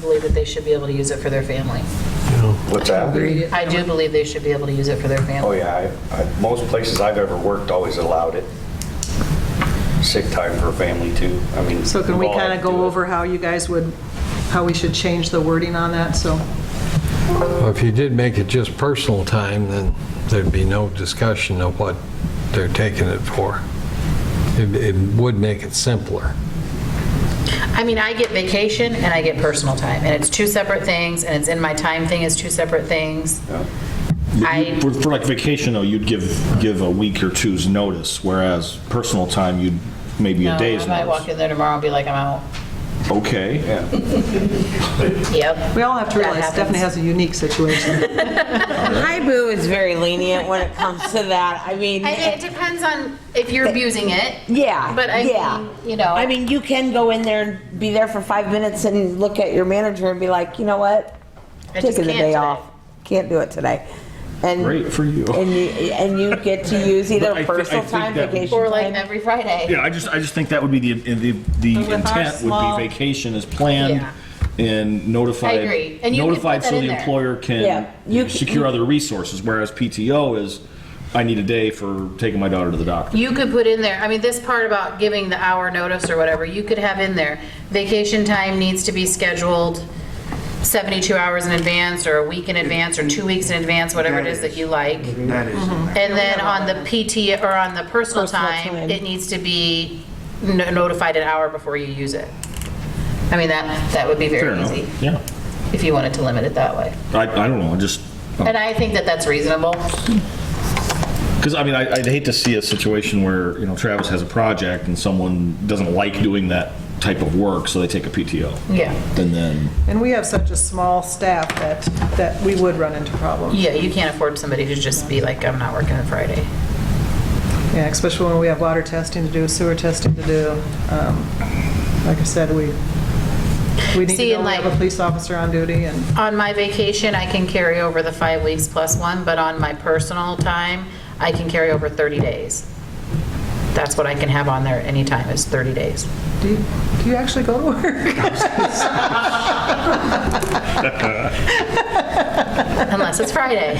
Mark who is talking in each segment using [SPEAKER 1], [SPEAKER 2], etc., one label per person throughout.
[SPEAKER 1] believe that they should be able to use it for their family.
[SPEAKER 2] What's that?
[SPEAKER 1] I do believe they should be able to use it for their
[SPEAKER 2] Oh,
[SPEAKER 1] family.
[SPEAKER 2] yeah, I- I- most places I've ever worked always allowed it. Sick time for family too, I mean.
[SPEAKER 3] So can we
[SPEAKER 2] we've all
[SPEAKER 3] kind
[SPEAKER 2] had
[SPEAKER 3] of
[SPEAKER 2] to do
[SPEAKER 3] go
[SPEAKER 2] it.
[SPEAKER 3] over how you guys would, how we should change the wording on that? So,
[SPEAKER 4] Well, If you did make it just personal time, then there'd be no discussion of what they're taking it for. It- It would make it simpler.
[SPEAKER 1] I mean, I get vacation and I get personal time, and it's two separate things, and it's in my time thing is two separate things. I-
[SPEAKER 5] For for like vacation, though, you'd give, give a week or two's notice, whereas personal time, you'd maybe a
[SPEAKER 1] No,
[SPEAKER 5] day's
[SPEAKER 1] I might walk
[SPEAKER 5] notice.
[SPEAKER 1] in there tomorrow and be like, I'm out.
[SPEAKER 5] Okay,
[SPEAKER 1] Yep.
[SPEAKER 3] we all have to
[SPEAKER 1] That
[SPEAKER 3] realize Stephanie
[SPEAKER 1] happens.
[SPEAKER 3] has a unique situation.
[SPEAKER 6] Hybu is very lenient when it comes to that. I mean,
[SPEAKER 1] I mean, it depends on if you're abusing it.
[SPEAKER 6] yeah,
[SPEAKER 1] But I
[SPEAKER 6] yeah.
[SPEAKER 1] mean, you know.
[SPEAKER 6] I mean, you can go in there and be there for five minutes and look at your manager and be like, you know what,
[SPEAKER 1] I just
[SPEAKER 6] taking the
[SPEAKER 1] can't
[SPEAKER 6] day
[SPEAKER 1] today."
[SPEAKER 6] off, can't do it today, and
[SPEAKER 5] great for you.
[SPEAKER 6] and you and you get to use either
[SPEAKER 5] But I thi- I
[SPEAKER 6] personal
[SPEAKER 5] think
[SPEAKER 6] time,
[SPEAKER 5] that-
[SPEAKER 6] vacation
[SPEAKER 1] Or like
[SPEAKER 6] time.
[SPEAKER 1] every Friday.
[SPEAKER 5] Yeah, I just, I just think that would be the, the the
[SPEAKER 3] with our
[SPEAKER 5] intent would
[SPEAKER 3] small-
[SPEAKER 5] be vacation is planned and
[SPEAKER 1] I
[SPEAKER 5] notified.
[SPEAKER 1] agree. And you can
[SPEAKER 5] Notified
[SPEAKER 1] put that
[SPEAKER 5] so
[SPEAKER 1] in
[SPEAKER 5] the
[SPEAKER 1] there.
[SPEAKER 5] employer
[SPEAKER 6] Yeah. You
[SPEAKER 5] can
[SPEAKER 6] c-
[SPEAKER 5] secure other resources, whereas PTO is, I need a day for taking my daughter to the doctor.
[SPEAKER 1] You could put in there, I mean, this part about giving the hour notice or whatever, you could have in there, vacation time needs to be scheduled 72 hours in advance, or a week in advance, or two weeks in advance, whatever it is that you like.
[SPEAKER 7] That is
[SPEAKER 8] Mm-hmm.
[SPEAKER 7] in there.
[SPEAKER 1] And then on the PT, or on the personal
[SPEAKER 6] Personal
[SPEAKER 1] time,
[SPEAKER 6] time.
[SPEAKER 1] it needs to be no- notified an hour before you use it. I mean, that, that would be
[SPEAKER 5] Fair
[SPEAKER 1] very easy,
[SPEAKER 5] enough, yeah. Oh.
[SPEAKER 1] if you wanted to limit it that way.
[SPEAKER 5] I, I don't know, I just,
[SPEAKER 1] And I think that that's reasonable.
[SPEAKER 5] Because, I mean, I- I'd hate to see a situation where, you know, Travis has a project and someone doesn't like doing that type of work, so they take a PTO.
[SPEAKER 1] Yeah.
[SPEAKER 5] And then,
[SPEAKER 3] And we have such a small staff that, that we would run into problems.
[SPEAKER 1] Yeah, you can't afford somebody to just be like, I'm not working on Friday.
[SPEAKER 3] Yeah, especially when we have water testing to do, sewer testing to do. Um, Like I said, we, we need
[SPEAKER 1] See,
[SPEAKER 3] to know
[SPEAKER 1] and
[SPEAKER 3] we have a
[SPEAKER 1] like-
[SPEAKER 3] police officer on duty and.
[SPEAKER 1] On my vacation, I can carry over the five weeks plus one, but on my personal time, I can carry over 30 days. That's what I can have on there at any time is 30 days.
[SPEAKER 3] Do you, do you actually go to work?
[SPEAKER 1] Unless it's Friday.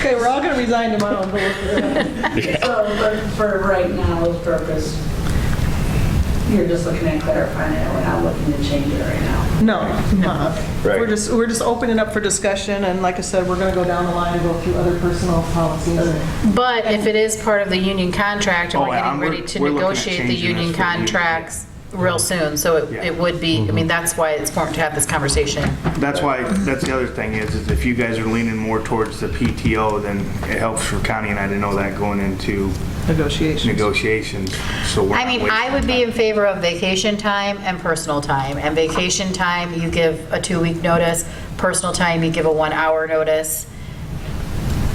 [SPEAKER 3] Okay, we're all going to resign tomorrow and go work for
[SPEAKER 8] So for, for right now's purpose, you're just looking at clarifying it, we're not looking to change it right now.
[SPEAKER 3] No, uh-uh.
[SPEAKER 2] Right.
[SPEAKER 3] We're just, we're just opening up for discussion, and like I said, we're going to go down the line and go through other personal policies.
[SPEAKER 1] But if it is part of the union contract and
[SPEAKER 7] Oh,
[SPEAKER 1] we're
[SPEAKER 7] yeah,
[SPEAKER 1] getting
[SPEAKER 7] we're-
[SPEAKER 1] ready to
[SPEAKER 7] we're looking at
[SPEAKER 1] negotiate the
[SPEAKER 7] changing this
[SPEAKER 1] union
[SPEAKER 7] for the union.
[SPEAKER 1] contracts real soon, so it, it would be, I mean, that's why it's important to have this conversation.
[SPEAKER 7] That's why, that's the other thing is, is if you guys are leaning more towards the PTO, then it helps for Connie and I to know that going into
[SPEAKER 3] Negotiations.
[SPEAKER 7] negotiations, so we're
[SPEAKER 1] I
[SPEAKER 7] not
[SPEAKER 1] mean,
[SPEAKER 7] wasting
[SPEAKER 1] I would be
[SPEAKER 7] time.
[SPEAKER 1] in favor of vacation time and personal time. And vacation time, you give a two-week notice. Personal time, you give a one-hour notice.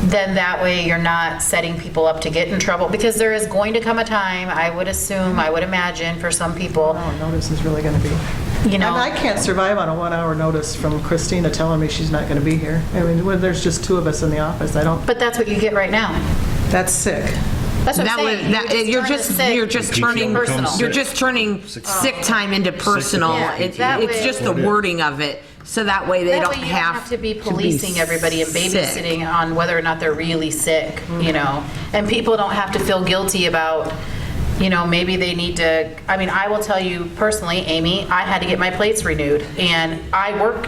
[SPEAKER 1] Then that way, you're not setting people up to get in trouble. Because there is going to come a time, I would assume, I would imagine, for some people,
[SPEAKER 3] Oh, notice is really going to be.
[SPEAKER 1] you
[SPEAKER 3] And I
[SPEAKER 1] know,
[SPEAKER 3] can't survive on a one-hour notice from Christina telling me she's not going to be here. I mean, when there's just two of us in the office, I don't,
[SPEAKER 1] but that's what you get right now.
[SPEAKER 3] that's sick.
[SPEAKER 1] That's what I'm
[SPEAKER 9] That was,
[SPEAKER 1] saying.
[SPEAKER 9] that, you're
[SPEAKER 1] turn
[SPEAKER 9] just,
[SPEAKER 1] the sick-
[SPEAKER 9] you're just
[SPEAKER 5] PTO
[SPEAKER 9] turning,
[SPEAKER 5] becomes
[SPEAKER 1] Personal.
[SPEAKER 9] you're just turning sick time into personal.
[SPEAKER 1] Yeah,
[SPEAKER 9] It-
[SPEAKER 1] that way-
[SPEAKER 9] It's just the wording of it, so that way they
[SPEAKER 1] That
[SPEAKER 9] don't
[SPEAKER 1] way you don't
[SPEAKER 9] have.
[SPEAKER 1] have to be policing everybody and
[SPEAKER 9] sick. Mm-hmm.
[SPEAKER 1] babysitting on whether or not they're really sick, you know? And people don't have to feel guilty about, you know, maybe they need to, I mean, I will tell you personally, Amy, I had to get my plates renewed, and I work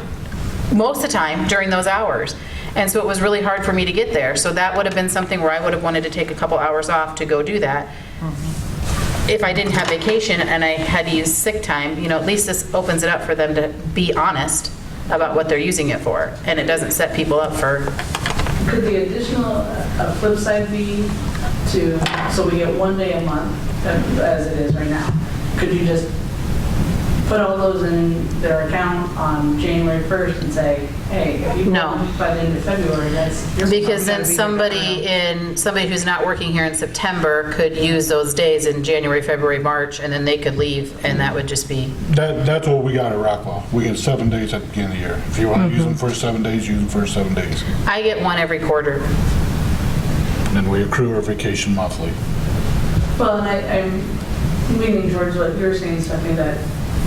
[SPEAKER 1] most of the time during those hours. And so it was really hard for me to get there. So that would have been something where I would have wanted to take a couple hours off to go do that. If I didn't have vacation and I had to use sick time, you know, at least this opens it up for them to be honest about what they're using it for. And it doesn't set people up for,
[SPEAKER 8] Could the additional, uh, flip side be to, so we get one day a month, uh, as it is right now? Could you just put all those in their account on January 1st and say, hey, if you
[SPEAKER 1] No.
[SPEAKER 8] want by the end of February, that's. your-
[SPEAKER 1] because then
[SPEAKER 8] gotta be-
[SPEAKER 1] somebody in, somebody who's not working here in September could use those days in January, February, March, and then they could leave, and that would just be,
[SPEAKER 10] That, that's what we got at Rockwell. We get seven days at the beginning of the year. If you want
[SPEAKER 1] Mm-hmm.
[SPEAKER 10] to use them for seven days, use them for seven days.
[SPEAKER 1] I get one every quarter.
[SPEAKER 10] And then we accrue our vacation monthly.
[SPEAKER 8] Well, and I, I'm leaning towards what you're saying, Stephanie, that